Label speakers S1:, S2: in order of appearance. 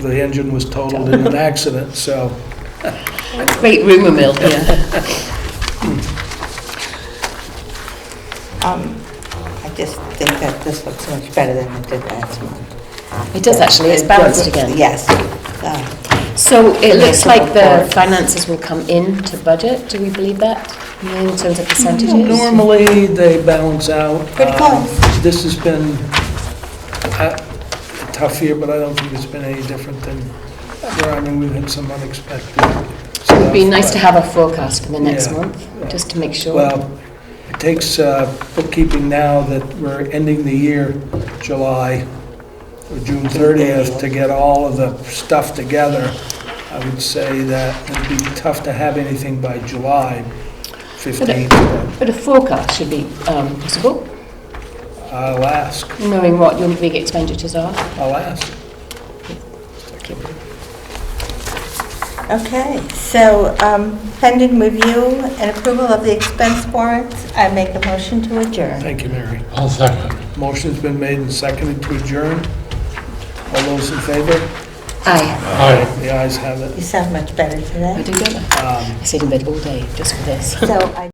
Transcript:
S1: The engine was totaled in an accident, so
S2: Great rumor mill here.
S3: Um, I just think that this looks much better than it did last month.
S2: It does actually, it's balanced again.
S3: Yes. Uh,
S2: So it looks like the finances will come in to budget, do we believe that? In terms of percentages?
S1: normally they balance out.
S3: Pretty
S1: Um,
S3: close.
S1: This has been uh, a tough year, but I don't think it's been any different than, where I mean, we've had some unexpected stuff.
S2: It'd be nice
S1: but-
S2: to have a forecast for the next
S1: Yeah.
S2: month, just to make sure.
S1: Well, it takes uh, bookkeeping now that we're ending the year, July, or June 30th, to get all of the stuff together. I would say that it'd be tough to have anything by July 15th.
S2: But a forecast should be um, possible,
S1: but I'll ask,
S2: knowing what your big expenditures are.
S1: I'll ask.
S3: Okay, so um, pending review and approval of the expense warrants, I make a motion to adjourn.
S1: Thank you, Mary.
S4: I'll second.
S1: Motion's been made and seconded to adjourn. All those in favor?
S2: Aye,
S4: Aye.
S1: The ayes have it.
S3: You sound much better
S2: I
S3: today.
S2: do, don't I?
S1: Um,
S2: I sit in bed all day just for this.
S3: So I